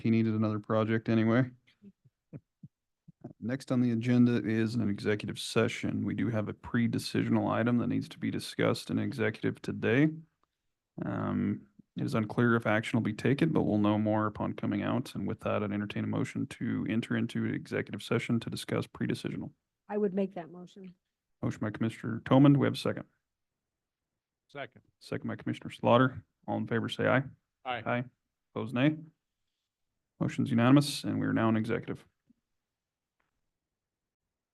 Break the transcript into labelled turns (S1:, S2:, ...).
S1: He needed another project anyway. Next on the agenda is an executive session. We do have a pre-decisional item that needs to be discussed in executive today. Um, it is unclear if action will be taken, but we'll know more upon coming out. And with that, I'd entertain a motion to enter into executive session to discuss pre-decisional.
S2: I would make that motion.
S1: Motion by Commissioner Toman. Do we have a second?
S3: Second.
S1: Second by Commissioner Slaughter. All in favor, say aye.
S3: Aye.
S1: Aye. Opposed, nay. Motion's unanimous, and we are now in executive.